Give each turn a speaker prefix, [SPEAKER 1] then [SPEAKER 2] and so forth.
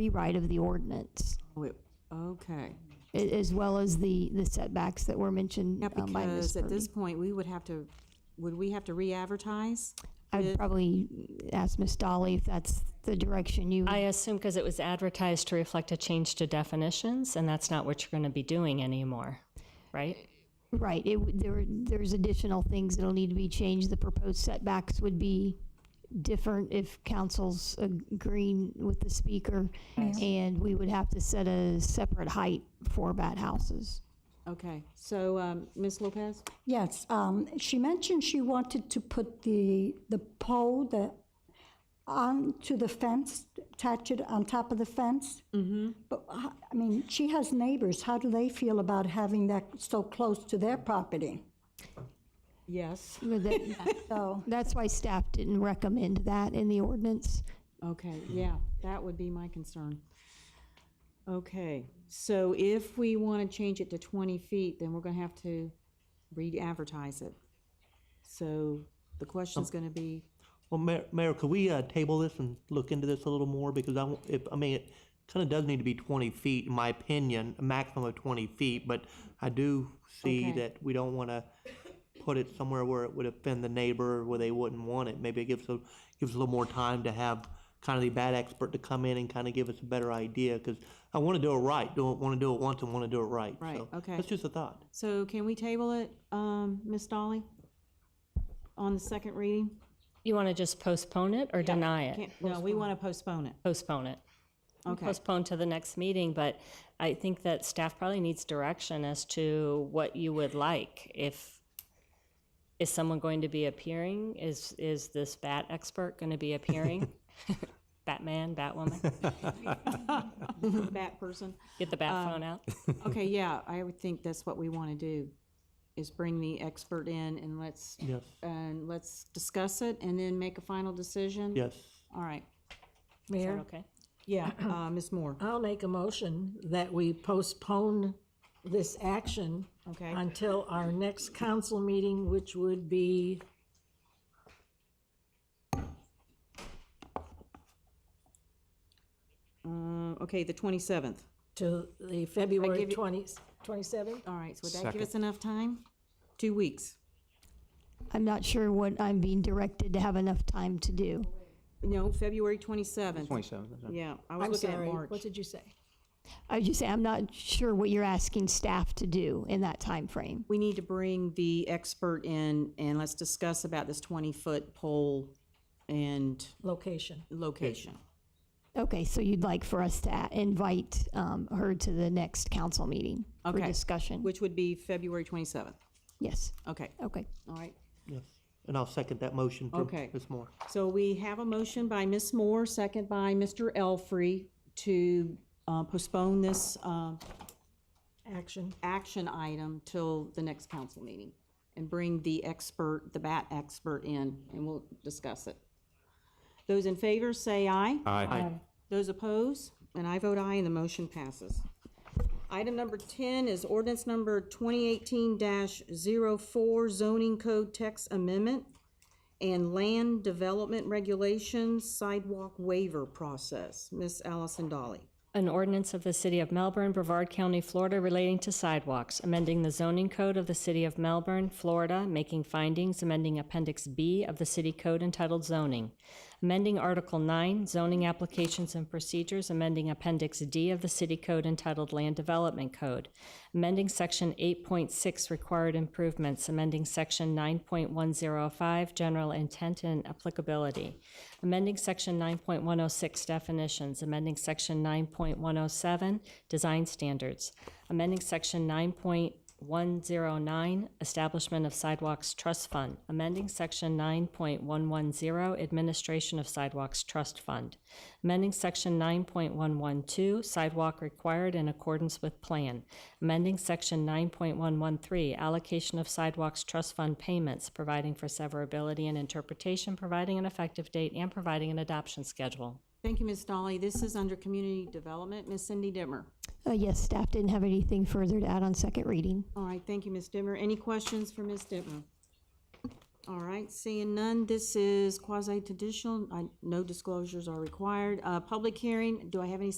[SPEAKER 1] rewrite of the ordinance,
[SPEAKER 2] Oh, it- Okay.
[SPEAKER 1] a- as well as the, the setbacks that were mentioned
[SPEAKER 2] Yeah,
[SPEAKER 1] um, by Ms.
[SPEAKER 2] because at
[SPEAKER 1] Purdy.
[SPEAKER 2] this point, we would have to, would we have to re-advertise?
[SPEAKER 1] I'd probably ask Ms. Dolly if that's the direction you,
[SPEAKER 3] I assume because it was advertised to reflect a change to definitions, and that's not what you're going to be doing anymore, right?
[SPEAKER 1] right, it, would- there, there's additional things that'll need to be changed. The proposed setbacks would be different if council's agreeing with the speaker. And we would have to set a separate height for bat houses.
[SPEAKER 2] Okay, so, um, Ms. Lopez?
[SPEAKER 4] Yes, um, she mentioned she wanted to put the, the pole that onto the fence, attach it on top of the fence. Mm-hmm. But, h- I mean, she has neighbors. How do they feel about having that so close to their property?
[SPEAKER 2] Yes.
[SPEAKER 1] But that-
[SPEAKER 4] So,
[SPEAKER 1] That's why staff didn't recommend that in the ordinance.
[SPEAKER 2] Okay, yeah, that would be my concern. Okay, so if we want to change it to 20 feet, then we're going to have to re-advertise it. So the question's going to be,
[SPEAKER 5] Well, Mayor, Mayor, could we uh, table this and look into this a little more? Because I, w- if, I mean, it kind of does need to be 20 feet, in my opinion, a maximum of 20 feet, but I do see
[SPEAKER 2] Okay.
[SPEAKER 5] that we don't want to put it somewhere where it would offend the neighbor, where they wouldn't want it. Maybe it gives, a- gives a little more time to have kind of the bad expert to come in and kind of give us a better idea, because I want to do it right, don't want to do it once and want to do it right.
[SPEAKER 2] Right,
[SPEAKER 5] So,
[SPEAKER 2] okay.
[SPEAKER 5] That's just a thought.
[SPEAKER 2] so can we table it, um, Ms. Dolly? On the second reading?
[SPEAKER 3] You want to just postpone it or deny it?
[SPEAKER 2] Can't- No, we want to postpone it.
[SPEAKER 3] Postpone it.
[SPEAKER 2] Okay,
[SPEAKER 3] Postpone to the next meeting, but I think that staff probably needs direction as to what you would like. If, is someone going to be appearing? Is, is this bat expert going to be appearing? Batman, Batwoman?
[SPEAKER 2] that person.
[SPEAKER 3] Get the
[SPEAKER 2] Uh,
[SPEAKER 3] bat phone out?
[SPEAKER 2] Okay, yeah, I would think that's what we want to do, is bring the expert in and let's,
[SPEAKER 5] Yes,
[SPEAKER 2] and let's discuss it and then make a final decision?
[SPEAKER 5] yes.
[SPEAKER 2] All right,
[SPEAKER 3] Is that
[SPEAKER 6] Mayor,
[SPEAKER 3] okay?
[SPEAKER 2] yeah, uh, Ms. Moore.
[SPEAKER 6] I'll make a motion that we postpone this action
[SPEAKER 2] Okay.
[SPEAKER 6] until our next council meeting, which would be
[SPEAKER 2] Uh, Okay, the 27th.
[SPEAKER 6] to the
[SPEAKER 2] I
[SPEAKER 6] February
[SPEAKER 2] give you-
[SPEAKER 6] 20, 27th.
[SPEAKER 2] All right, so would that give us enough time? Two weeks?
[SPEAKER 1] I'm not sure what I'm being directed to have enough time to do.
[SPEAKER 2] No, February 27th.
[SPEAKER 7] 27th.
[SPEAKER 2] Yeah, I was
[SPEAKER 6] I'm
[SPEAKER 2] looking at
[SPEAKER 6] sorry, what
[SPEAKER 2] March.
[SPEAKER 6] did you say?
[SPEAKER 1] I would just say, I'm not sure what you're asking staff to do in that time frame.
[SPEAKER 2] We need to bring the expert in and let's discuss about this 20-foot pole and
[SPEAKER 6] Location.
[SPEAKER 2] location.
[SPEAKER 1] Okay, so you'd like for us to a- invite um, her to the next council meeting for
[SPEAKER 2] Okay.
[SPEAKER 1] discussion?
[SPEAKER 2] Which would be February 27th.
[SPEAKER 1] Yes,
[SPEAKER 2] Okay,
[SPEAKER 1] okay.
[SPEAKER 2] all right.
[SPEAKER 5] Yes. And I'll second that motion for
[SPEAKER 2] Okay.
[SPEAKER 5] Ms. Moore.
[SPEAKER 2] So we have a motion by Ms. Moore, second by Mr. Elfrey, to uh, postpone this uh,
[SPEAKER 6] Action.
[SPEAKER 2] action item till the next council meeting and bring the expert, the bat expert in, and we'll discuss it. Those in favor say aye.
[SPEAKER 7] Aye.
[SPEAKER 2] Those opposed? And I vote aye, and the motion passes. Item number 10 is ordinance number 2018-04 zoning code text amendment and land development regulations sidewalk waiver process. Ms. Allison Dolly.
[SPEAKER 3] An ordinance of the City of Melbourne, Brevard County, Florida relating to sidewalks, amending the zoning code of the City of Melbourne, Florida, making findings, amending Appendix B of the City Code entitled Zoning, amending Article 9, Zoning Applications and Procedures, amending Appendix D of the City Code entitled Land Development Code, amending Section 8.6 Required Improvements, amending Section 9.105 General Intent and Applicability, amending Section 9.106 Definitions, amending Section 9.107 Design Standards, amending Section 9.109 Establishment of Sidewalks Trust Fund, amending Section 9.110 Administration of Sidewalks Trust Fund, amending Section 9.112 Sidewalk Required in Accordance with Plan, amending Section 9.113 Allocation of Sidewalks Trust Fund Payments, providing for severability and interpretation, providing an effective date, and providing an adoption schedule.
[SPEAKER 2] Thank you, Ms. Dolly. This is under community development. Ms. Cindy Dimmer.
[SPEAKER 1] Uh, Yes, staff didn't have anything further to add on second reading.
[SPEAKER 2] All right, thank you, Ms. Dimmer. Any questions for Ms. Dimmer? All right, seeing none, this is quasi-judicial. I- No disclosures are required. Uh, Public hearing, do I have any